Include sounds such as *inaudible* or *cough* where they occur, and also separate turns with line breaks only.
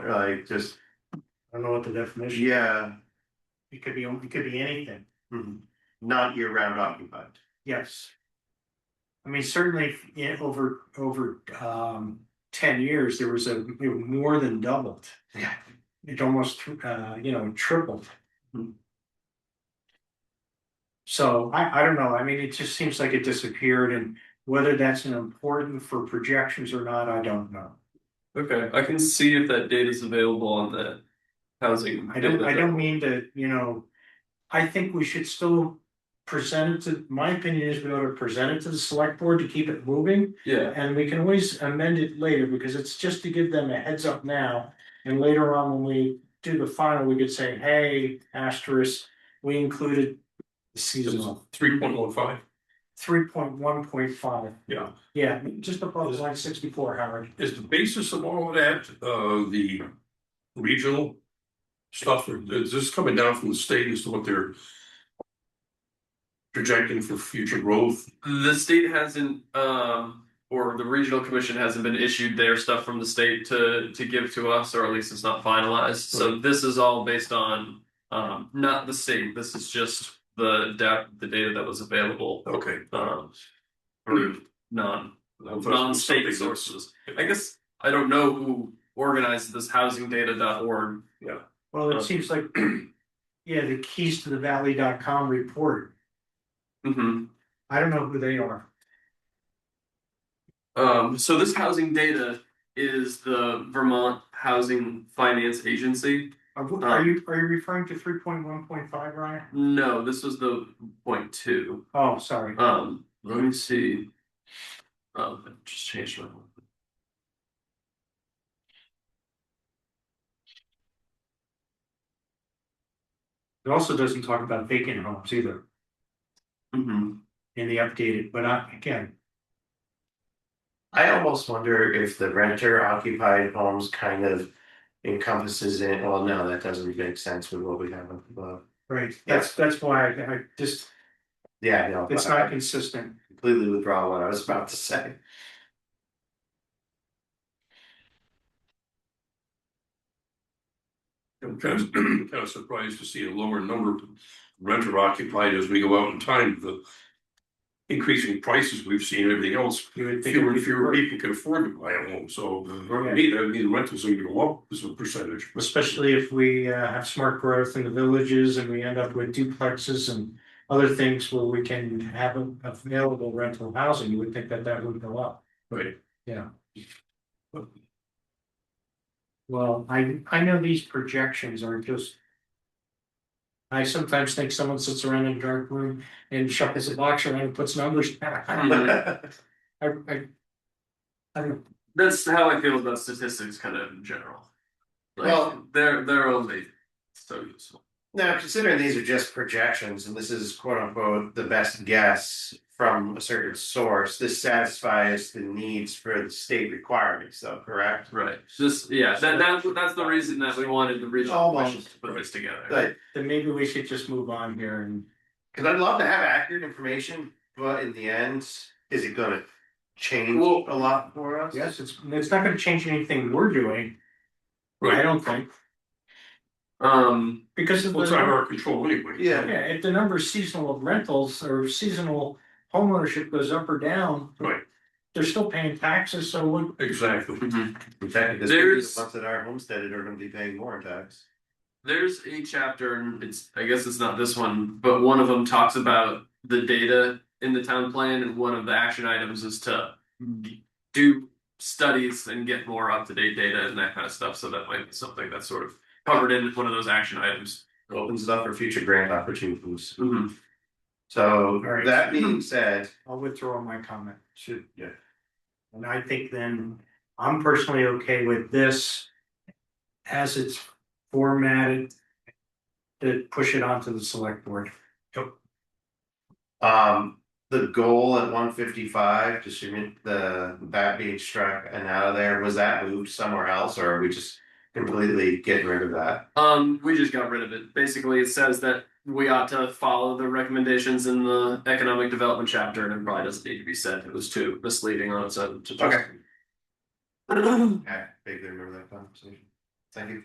I just,
I don't know what the definition,
yeah,
it could be, it could be anything,
mhm, not year round occupied.
yes. I mean, certainly, yeah, over, over, um, ten years, there was a, it more than doubled.
Yeah.
It almost, uh, you know, tripled.
Hmm.
So I, I don't know, I mean, it just seems like it disappeared and whether that's an important for projections or not, I don't know.
Okay, I can see if that data is available on the housing.
I don't, I
data.
don't mean to, you know, I think we should still present it to, my opinion is we ought to present it to the select board to keep it moving.
Yeah,
And we can always amend it later because it's just to give them a heads up now. And later on, when we do the final, we could say, hey, asterisk, we included seasonal,
Three point one five,
three point one point five.
yeah.
Yeah, just above line sixty-four, Howard.
Is the basis of all of that, uh, the regional stuff, or is this coming down from the state as to what they're projecting for future growth?
the state hasn't, um, or the regional commission hasn't been issued their stuff from the state to to give to us, or at least it's not finalized. So this is all based on, um, not the state. This is just the da- the data that was available,
Okay.
um,
Hmm.
for non non-state sources. I guess I don't know who organized this housingdata.org.
Well, it seems like, *clears throat* yeah, the keys to the valley.com report.
Mm-hmm.
I don't know who they are.
Um, so this housing data is the Vermont Housing Finance Agency.
Are, w- Uh, are you, are you referring to three point one point five, Ryan?
No, this was the point two.
Oh, sorry.
Um, let me see. Um, I just changed my.
It also doesn't talk about vacant homes either
Mm-hmm.
in the updated, but I, again,
I almost wonder if the renter occupied homes kind of encompasses it. Well, no, that doesn't make sense with what we have up above.
right, that's, that's why I, I just,
Yeah, no.
it's
I-
not consistent.
completely withdraw what I was about to say.
I'm kind *clears throat* of, kind of surprised to see a lower number of renter occupied as we go out in time, the increasing prices we've seen, and everything else,
You would think,
fewer and
it'd be-
fewer people can afford to buy a home, so for me, that means rentals are gonna go up as a percentage.
especially if we uh, have smart growth in the villages and we end up with duplexes and other things where we can have a- available rental housing, you would think that that would go up.
Right.
Well, I, I know these projections are just. I sometimes think someone sits around in a dark room and shuffles a box around and puts numbers
*laughs*
back.
Hmm.
I,
*laughs*
Mm-hmm.
I. I don't,
That's how I feel about statistics, kind of in general. Like,
Well-
they're they're only so useful.
Now, considering these are just projections and this is quote unquote the best guess from a certain source, this satisfies the needs for the state requirements though, correct?
Right. Just yeah. That that's that's the reason that we wanted the regional
Almost.
commission to put this together.
Like,
then maybe we should just move on here and,
cause I'd love to have accurate information, but in the end, is it gonna change
Well-
a lot for us?
yes, it's, it's not gonna change anything we're doing, I
Right,
don't think,
Um.
because of
well, it's out of
the.
our control anyway.
Yeah.
Yeah, if the number of seasonal rentals or seasonal homeownership goes up or down.
Right.
They're still paying taxes, so what,
Exactly.
mhm.
In fact, this could be the
There's-
ones that are homesteaded are gonna be paying more in tax.
There's a chapter, and it's I guess it's not this one, but one of them talks about the data in the town plan, and one of the action items is to do studies and get more up to date data and that kind of stuff. So that might be something that's sort of covered in one of those action items.
It Opens it up for future grant opportunities.
Mhm.
So
right.
that being said,
I'll withdraw my comment.
should, yeah.
And I think then, I'm personally okay with this. As it's formatted. To push it onto the select board.
Um, the goal at one fifty-five, just remove the, that being struck and out of there, was that moved somewhere else, or are we just completely getting rid of that?
Um, we just got rid of it. Basically, it says that we ought to follow the recommendations in the economic development chapter, and it probably doesn't need to be said. It was too misleading on its own. to just- *clears throat*
I vaguely remember that conversation. Thank you.